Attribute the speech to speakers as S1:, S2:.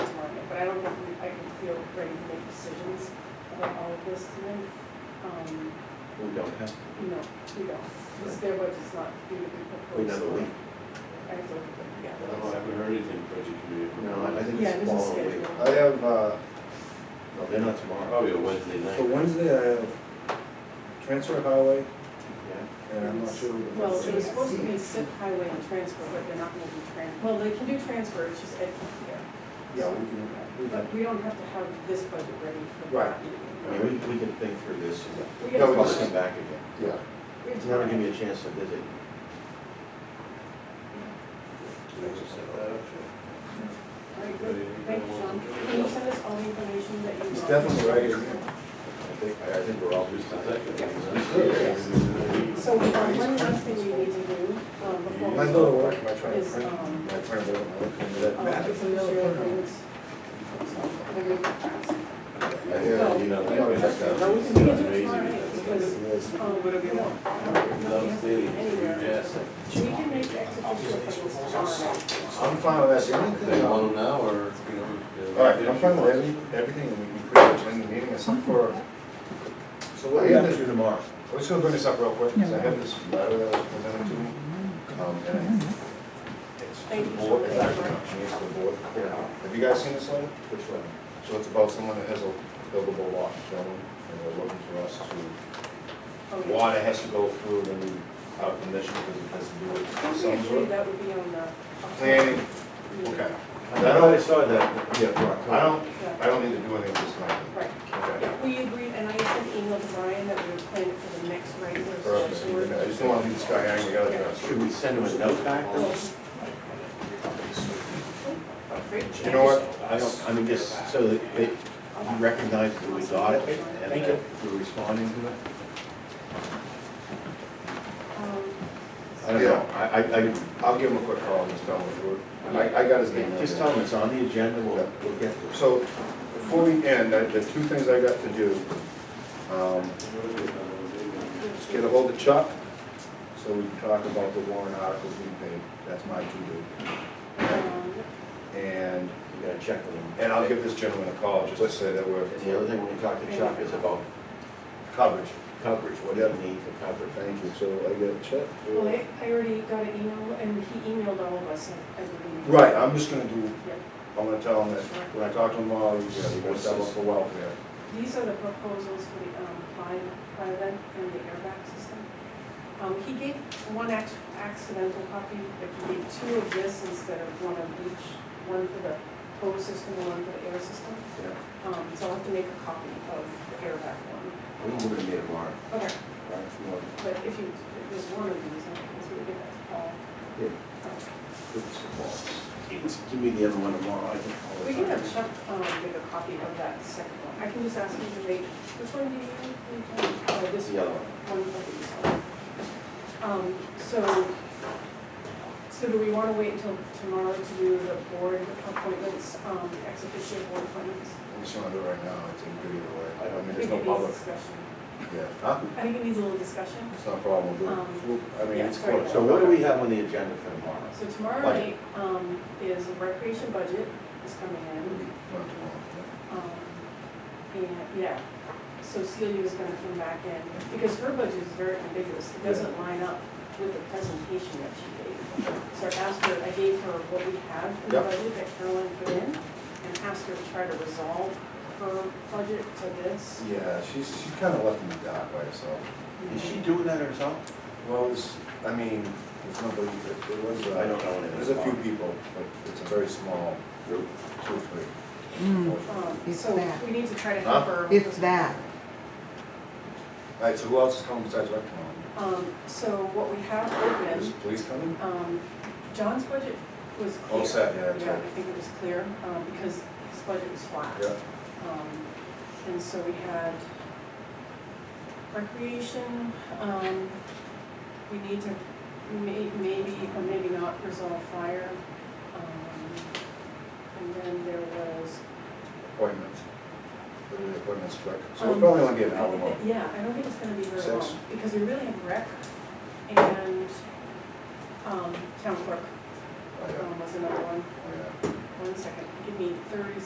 S1: um,
S2: We don't have,
S1: no, we don't. This their budget's not even proposed.
S2: we never went.
S1: I have to look at them together.
S3: I don't- I haven't heard anything from the committee.
S2: No, I I think
S1: Yeah,
S2: it's
S1: this is
S2: tomorrow. week.
S1: scheduled.
S4: I have, uh,
S2: No, they're not tomorrow.
S3: Probably a Wednesday
S4: for
S3: night.
S4: Wednesday, I have uh, transfer highway,
S2: Yeah.
S4: and I'm not sure. what the-
S1: Well, it was supposed to be SIP highway and transfer, but they're not gonna do tran, well, they can do transfer, it's just Ed here.
S4: Yeah, we can, we can,
S1: But we don't have to have this budget ready for
S4: Right.
S1: that meeting.
S2: I mean, we, we can think through this and
S1: We
S4: No,
S1: have
S4: we
S2: probably
S4: just-
S2: come
S1: time.
S2: back again.
S4: yeah.
S1: We have
S2: It's never give
S1: time.
S2: me a chance to visit.
S1: All right, good. Thank you, Sean. Can you send us all the information that you want?
S4: It's definitely right here.
S2: I think, I I think we're all just.
S1: So, um, one last thing we need to do, um, before. we-
S4: My little work, my trying to
S1: Is,
S4: print,
S1: um,
S4: my trying to, my look into
S1: Uh,
S4: that map.
S1: it's a share agreements. So, we're gonna pass.
S4: Yeah,
S2: You know,
S1: We
S2: that-
S1: can
S2: that's-
S1: do it tomorrow night, because,
S4: it is.
S1: um, we don't have to be um, anywhere.
S3: Yes.
S1: We can make execution appointments tomorrow night.
S4: I'm fine with that, the only
S3: They
S4: thing,
S3: want
S4: all
S3: them now, or? you know,
S4: right, I'm fine with every, everything, and we can pretty much end the meeting, except for. So
S2: What do
S4: what we
S2: you
S4: have
S2: have
S4: to
S2: to do tomorrow?
S4: I'm just gonna bring this up real quick, because I have this letter that was presented to me. Um, and It's to
S1: Thank you.
S4: the board, it's actually not to me, it's to the board. Have you guys seen this letter?
S2: Which one?
S4: So it's about someone that has a buildable lot, gentlemen, and they're looking for us to,
S1: Okay.
S4: water has to go through, then we, our permission, because it has to do with
S1: Don't we
S4: some
S1: agree
S4: sort of
S1: that would be on the.
S4: planning, okay.
S2: I thought I saw that, yeah, for October.
S4: I don't,
S1: Yeah,
S4: I don't need to do anything this night,
S1: right.
S4: okay?
S1: Yeah, we agreed, and I sent an email to Brian that we were planning for the next regular session.
S4: Perfect, I just don't wanna leave this guy hanging, we gotta address it.
S2: Should we send him a note back?
S1: Oh,
S4: You know what?
S2: I don't, I mean, just so that they recognize that we got it and that we're responding to it.
S1: um,
S2: I don't know, I, I, I
S4: I'll give him a quick call and just tell him to do it. I, I got his name.
S2: Just tell them it's on the agenda, we'll, we'll get to it.
S4: So, before we end, I- the two things I got to do, um, is
S1: um,
S4: get ahold of Chuck, so we can talk about the warrant articles we paid, that's my to
S1: um,
S4: do. And,
S2: We gotta check with them.
S4: and I'll give this gentleman a call, just to say that we're
S2: And the other thing, when we talk to Chuck, is about
S4: coverage.
S2: coverage, what do you need for coverage?
S4: Thank you, so I get Chuck.
S1: Well, I I already got an email, and he emailed all of us, I believe.
S4: Right, I'm just gonna do,
S1: Yeah.
S4: I'm gonna tell him that, when I talk to him tomorrow, you gotta, you gotta settle for welfare.
S1: These are the proposals for the um, fine, fire vent and the airbag system. Um, He gave one ac- accidental copy, but he gave two of this instead of one of each, one for the tow system and one for the air system.
S2: Yeah.
S1: Um, So I'll have to make a copy of the airbag one.
S2: We can do it tomorrow,
S1: Okay,
S2: right, if you want.
S1: but if you, if there's one of these, I guess we give that to Paul.
S2: Yeah, give us a call. It's- Give me the other one tomorrow, I can call it.
S1: We can have Chuck um, make a copy of that second one. I can just ask him to make, which one do you need? Oh, this
S2: The
S1: one.
S2: other
S1: One
S2: one.
S1: of these. Um, So, so do we want to wait until tomorrow to do the board appointments, um, ex officio board appointments?
S4: I'm just gonna do it right now, it's in good either way, I don't
S1: I
S4: mean, there's
S1: think
S4: no
S1: it needs
S4: public,
S1: discussion.
S4: yeah, huh?
S1: I think it needs a little discussion.
S4: It's not a problem, we'll do it.
S1: Um,
S4: We'll- I mean,
S1: yeah,
S4: it's
S1: sorry.
S4: close.
S2: So what do we have on the agenda for tomorrow?
S1: So tomorrow night
S2: Budget.
S1: um, is recreation budget is coming in. Um, And, yeah, so Celia's gonna come back in, because her budget is very ambiguous, it doesn't line up with the presentation that she gave. So I asked her, I gave her what we had in the
S4: Yep.
S1: budget that Caroline put in, and asked her to try to resolve her budget to this.
S4: Yeah, she's, she's kind of left in the dark by herself.
S2: Is she doing that herself?
S4: Well, it's, I mean, there's nobody, there- there was,
S2: I don't
S4: uh,
S2: know anything.
S4: there's a few people, but it's a very small group, two or three. unfortunately.
S1: Um,
S5: It's
S1: So
S5: that.
S1: we need to try to help her.
S5: It's that.
S4: All right, so who else is coming besides Rec tomorrow?
S1: Um, so what we have open.
S4: Is police coming?
S1: Um, John's budget was clear.
S4: All set, yeah, it's
S1: Yeah,
S4: all-
S1: I think it was clear, um, because his budget was flat.
S4: Yeah.
S1: Um, and so we had recreation, um, we need to may, maybe, or maybe not resolve fire. Um, and then there was.
S4: Appointments. What are the appointments, Rec? So
S1: um,
S4: we'll probably only get an hour
S1: I
S4: more.
S1: think that- Yeah, I don't think it's gonna be very
S4: Six.
S1: long, because we really have rec and, um, town clerk,
S4: Oh, yeah.
S1: um, was another one.
S4: Oh, yeah.
S1: One second, give me thirty